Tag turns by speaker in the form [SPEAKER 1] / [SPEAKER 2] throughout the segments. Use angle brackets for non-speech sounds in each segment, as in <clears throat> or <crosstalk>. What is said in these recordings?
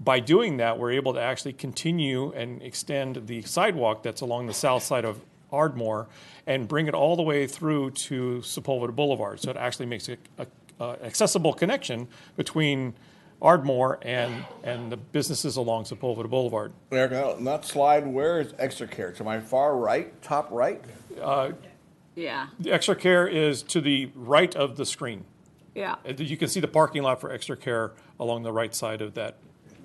[SPEAKER 1] by doing that, we're able to actually continue and extend the sidewalk that's along the south side of Ardmore and bring it all the way through to Sepulveda Boulevard. So it actually makes a, a, a accessible connection between Ardmore and, and the businesses along Sepulveda Boulevard.
[SPEAKER 2] Eric, no, not slide, where is extra care? To my far right, top right?
[SPEAKER 3] Yeah,
[SPEAKER 1] The extra care is to the right of the screen.
[SPEAKER 3] yeah.
[SPEAKER 1] Uh, You can see the parking lot for extra care along the right side of that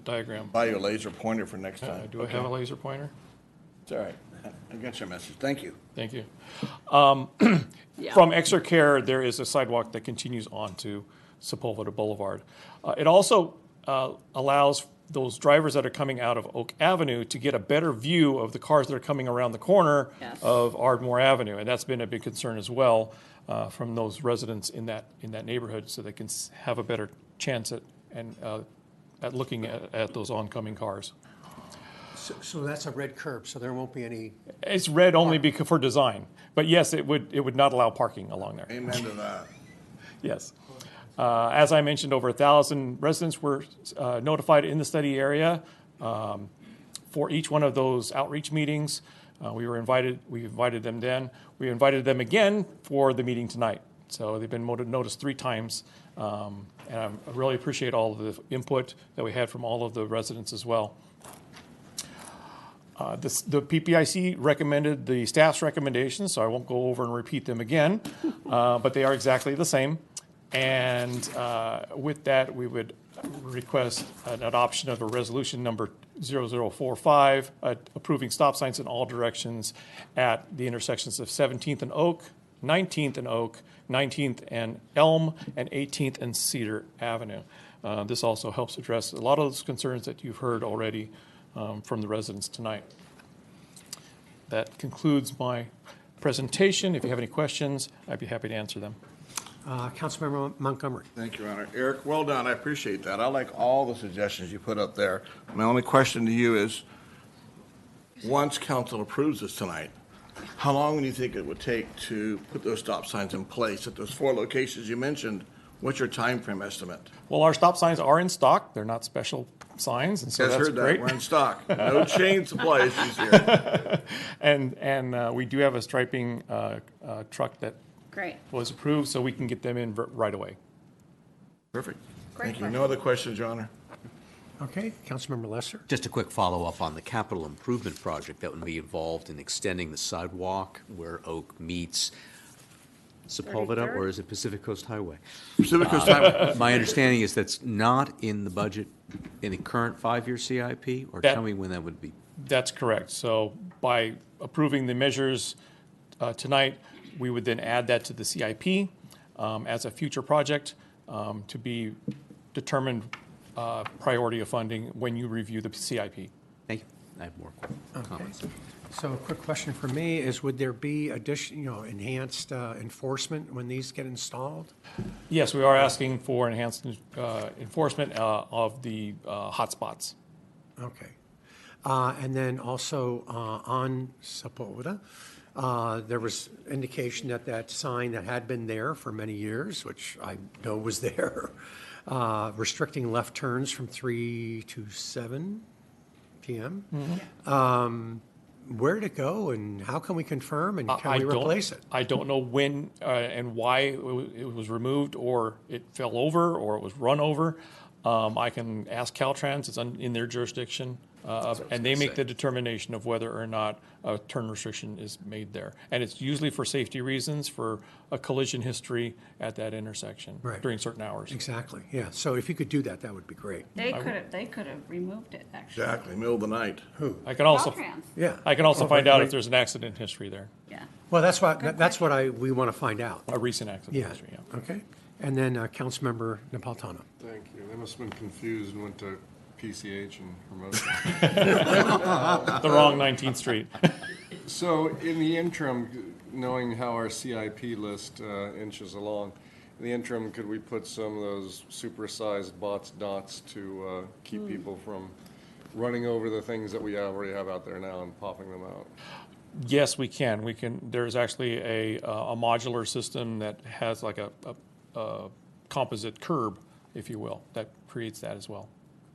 [SPEAKER 1] diagram.
[SPEAKER 2] Buy you a laser pointer for next
[SPEAKER 1] Uh,
[SPEAKER 2] time.
[SPEAKER 1] do I have a laser pointer?
[SPEAKER 2] It's all right. I- I got your message. Thank you.
[SPEAKER 1] Thank you. Um, <clears throat>
[SPEAKER 3] Yeah.
[SPEAKER 1] From Exeter Care, there is a sidewalk that continues on to Sepulveda Boulevard. Uh, it also uh, allows those drivers that are coming out of Oak Avenue to get a better view of the cars that are coming around the corner
[SPEAKER 3] Yes.
[SPEAKER 1] of Ardmore Avenue, and that's been a big concern as well uh, from those residents in that in that neighborhood, so they can s- have a better chance at and uh, at looking at, at those oncoming cars.
[SPEAKER 4] So, so that's a red curb, so there won't be any,
[SPEAKER 1] It's red only because for design, but yes, it would it would not allow parking along there.
[SPEAKER 2] Amen to that.
[SPEAKER 1] Yes. Uh, As I mentioned, over 1,000 residents were uh, notified in the study area um, for each one of those outreach meetings. Uh, We were invited, we invited them then. We invited them again for the meeting tonight. So they've been moti- noticed three times. Um, And I'm- I really appreciate all of the input that we had from all of the residents as well. Uh, this- The PPIC recommended the staff's recommendations, so I won't go over and repeat them again, uh, but they are exactly the same. And uh, with that, we would request an adoption of a resolution number 0045, uh, approving stop signs in all directions at the intersections of 17th and Oak, 19th and Oak, 19th and Elm, and 18th and Cedar Avenue. Uh, This also helps address a lot of those concerns that you've heard already um, from the residents tonight. That concludes my presentation. If you have any questions, I'd be happy to answer them.
[SPEAKER 4] uh, Councilmember Montgomery.
[SPEAKER 2] Thank you, Your Honor. Eric, well done. I appreciate that. I like all the suggestions you put up there. My only question to you is, once council approves this tonight, how long do you think it would take to put those stop signs in place at those four locations you mentioned? What's your time frame estimate?
[SPEAKER 1] Well, our stop signs are in stock. They're not special signs, and so
[SPEAKER 2] Guys
[SPEAKER 1] that's
[SPEAKER 2] heard that.
[SPEAKER 1] great.
[SPEAKER 2] We're in <laughs> stock. No chain supply issues here.
[SPEAKER 1] And, and uh, we do have a striping uh, uh, truck that
[SPEAKER 3] Great.
[SPEAKER 1] was approved, so we can get them in ver- right away.
[SPEAKER 2] Perfect.
[SPEAKER 3] Great
[SPEAKER 2] Thank you. No other questions, Your Honor?
[SPEAKER 4] Okay, Councilmember Lesser.
[SPEAKER 5] Just a quick follow-up on the capital improvement project that would be involved in extending the sidewalk where Oak meets Sepulveda,
[SPEAKER 3] 33rd?
[SPEAKER 5] or is it Pacific Coast Highway?
[SPEAKER 2] Pacific Coast Highway.
[SPEAKER 5] My understanding is that's not in the budget in the current five-year CIP, or
[SPEAKER 1] That-
[SPEAKER 5] tell me when that would be.
[SPEAKER 1] That's correct. So by approving the measures uh, tonight, we would then add that to the CIP um, as a future project um, to be determined uh, priority of funding when you review the CIP.
[SPEAKER 5] Thank you. I have more comments.
[SPEAKER 4] So a quick question for me is, would there be addition, you know, enhanced uh, enforcement when these get installed?
[SPEAKER 1] Yes, we are asking for enhanced uh, enforcement uh, of the uh, hotspots.
[SPEAKER 4] Okay. Uh, And then also uh, on Sepulveda, uh, there was indication that that sign that had been there for many years, which I know was <laughs> there, uh, restricting left turns from 3 to 7 PM.
[SPEAKER 1] Mm-hmm.
[SPEAKER 4] Um, Where did it go and how can we confirm and
[SPEAKER 1] Uh, I
[SPEAKER 4] can we
[SPEAKER 1] don't-
[SPEAKER 4] replace it?
[SPEAKER 1] I don't know when uh, and why it wa- it was removed, or it fell over, or it was run over. Um, I can ask Caltrans, it's un- in their jurisdiction, uh, and they make the determination of whether or not a turn restriction is made there. And it's usually for safety reasons, for a collision history at that intersection
[SPEAKER 4] Right.
[SPEAKER 1] during certain hours.
[SPEAKER 4] Exactly, yeah. So if you could do that, that would be great.
[SPEAKER 3] They could have, they could have removed it, actually.
[SPEAKER 2] Exactly, middle of the night.
[SPEAKER 1] I can also,
[SPEAKER 3] Caltrans,
[SPEAKER 4] Yeah.
[SPEAKER 1] I can also
[SPEAKER 4] Oh,
[SPEAKER 1] find
[SPEAKER 4] wait,
[SPEAKER 1] out
[SPEAKER 4] wait.
[SPEAKER 1] if there's an accident history there,
[SPEAKER 3] yeah.
[SPEAKER 4] Well, that's what, that's what I, we want to find out.
[SPEAKER 1] a recent accident
[SPEAKER 4] Yeah,
[SPEAKER 1] history, yeah.
[SPEAKER 4] okay. And then uh, Councilmember Napolitano.
[SPEAKER 6] Thank you. They must have been confused and went to PCH and Hermosa.
[SPEAKER 1] The wrong 19th Street.
[SPEAKER 6] <laughs>
[SPEAKER 1] <laughs>
[SPEAKER 6] So in the interim, knowing how our CIP list uh, inches along, in the interim, could we put some of those supersized bots dots to uh, keep people from running over the things that we already have out there now and popping them out?
[SPEAKER 1] Yes, we can. We can. There's actually a, uh, a modular system that has like a, a, a composite curb, if you will, that creates that as well.